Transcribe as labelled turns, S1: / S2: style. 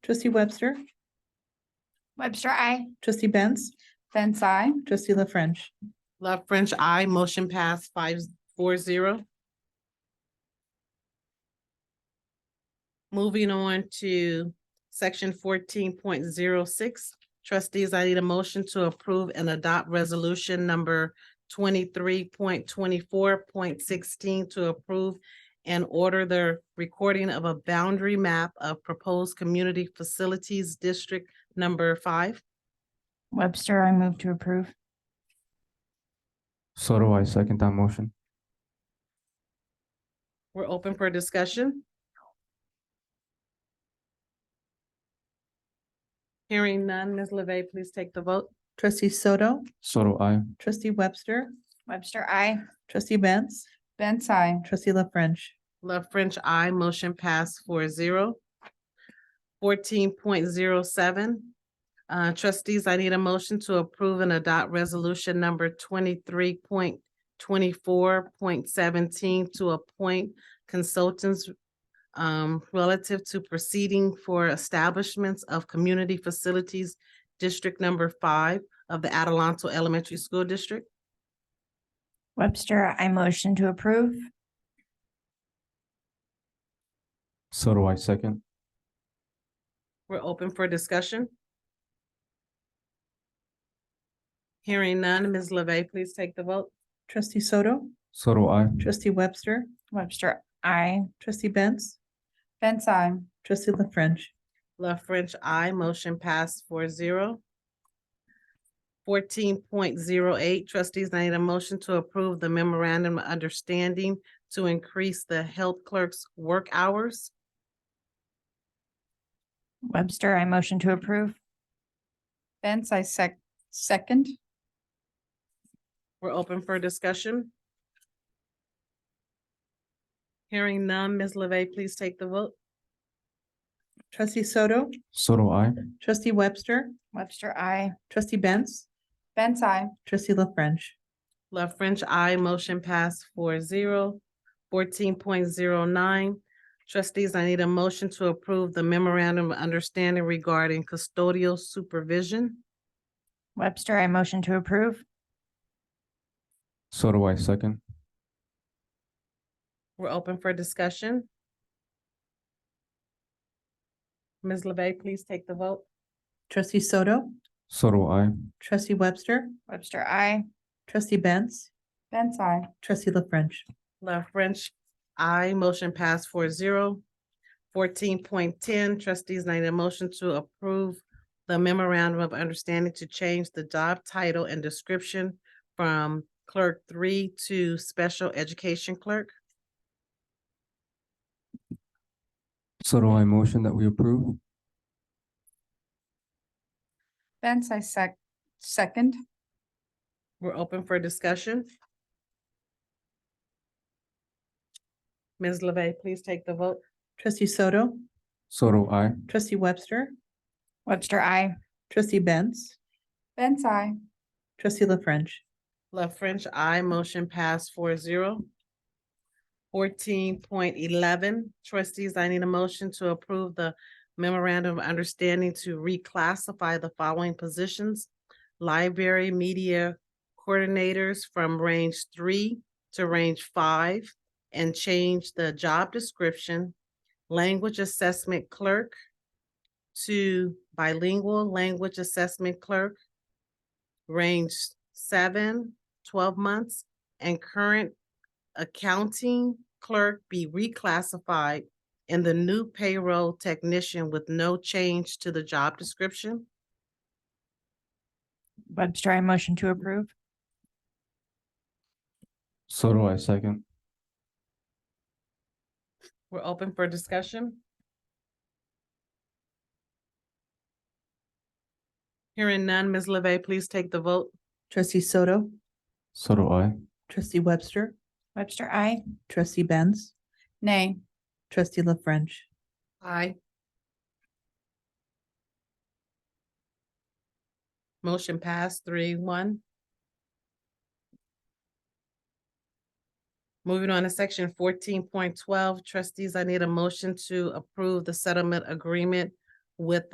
S1: Trustee Webster,
S2: Webster, I.
S1: trustee Benz,
S2: Benz, I.
S1: trustee La French.
S3: Love French, I motion pass five four zero. Moving on to section fourteen point zero six. Trustees, I need a motion to approve and adopt resolution number twenty-three point twenty-four point sixteen to approve and order the recording of a boundary map of proposed community facilities district number five.
S2: Webster, I move to approve.
S4: So do I second that motion.
S3: We're open for discussion. Hearing none, Ms. LeVey, please take the vote.
S1: Trustee Soto,
S4: So do I.
S1: trustee Webster,
S2: Webster, I.
S1: trustee Benz,
S2: Benz, I.
S1: trustee La French.
S3: Love French, I motion pass four zero. Fourteen point zero seven. Uh, trustees, I need a motion to approve and adopt resolution number twenty-three point twenty-four point seventeen to appoint consultants um, relative to proceeding for establishments of community facilities, District Number Five of the Adelanto Elementary School District.
S2: Webster, I motion to approve.
S4: So do I second.
S3: We're open for discussion. Hearing none, Ms. LeVey, please take the vote.
S1: Trustee Soto,
S4: So do I.
S1: trustee Webster,
S2: Webster, I.
S1: trustee Benz,
S2: Benz, I.
S1: trustee La French.
S3: Left French, I motion passed four zero. Fourteen point zero eight, trustees, I need a motion to approve the memorandum of understanding to increase the health clerk's work hours.
S2: Webster, I motion to approve. Benz, I sec- second.
S3: We're open for discussion. Hearing none, Ms. LeVey, please take the vote.
S1: Trustee Soto,
S4: So do I.
S1: trustee Webster,
S2: Webster, I.
S1: trustee Benz,
S2: Benz, I.
S1: trustee La French.
S3: Left French, I motion pass four zero. Fourteen point zero nine. Trustees, I need a motion to approve the memorandum of understanding regarding custodial supervision.
S2: Webster, I motion to approve.
S4: So do I second.
S3: We're open for discussion. Ms. LeVey, please take the vote.
S1: Trustee Soto,
S4: So do I.
S1: trustee Webster,
S2: Webster, I.
S1: trustee Benz,
S2: Benz, I.
S1: trustee La French.
S3: Left French, I motion pass four zero. Fourteen point ten, trustees, I need a motion to approve the memorandum of understanding to change the job title and description from clerk three to special education clerk.
S4: So do I motion that we approve.
S2: Benz, I sec- second.
S3: We're open for discussion. Ms. LeVey, please take the vote.
S1: Trustee Soto,
S4: So do I.
S1: trustee Webster,
S2: Webster, I.
S1: trustee Benz,
S2: Benz, I.
S1: trustee La French.
S3: Love French, I motion pass four zero. Fourteen point eleven, trustees, I need a motion to approve the memorandum of understanding to reclassify the following positions. Library media coordinators from range three to range five and change the job description. Language assessment clerk to bilingual language assessment clerk range seven, 12 months, and current accounting clerk be reclassified in the new payroll technician with no change to the job description.
S2: Webster, I motion to approve.
S4: So do I second.
S3: We're open for discussion. Hearing none, Ms. LeVey, please take the vote.
S1: Trustee Soto,
S4: So do I.
S1: trustee Webster,
S2: Webster, I.
S1: trustee Benz,
S2: Nay.
S1: trustee La French.
S3: Aye. Motion passed three one. Moving on to section fourteen point twelve, trustees, I need a motion to approve the settlement agreement with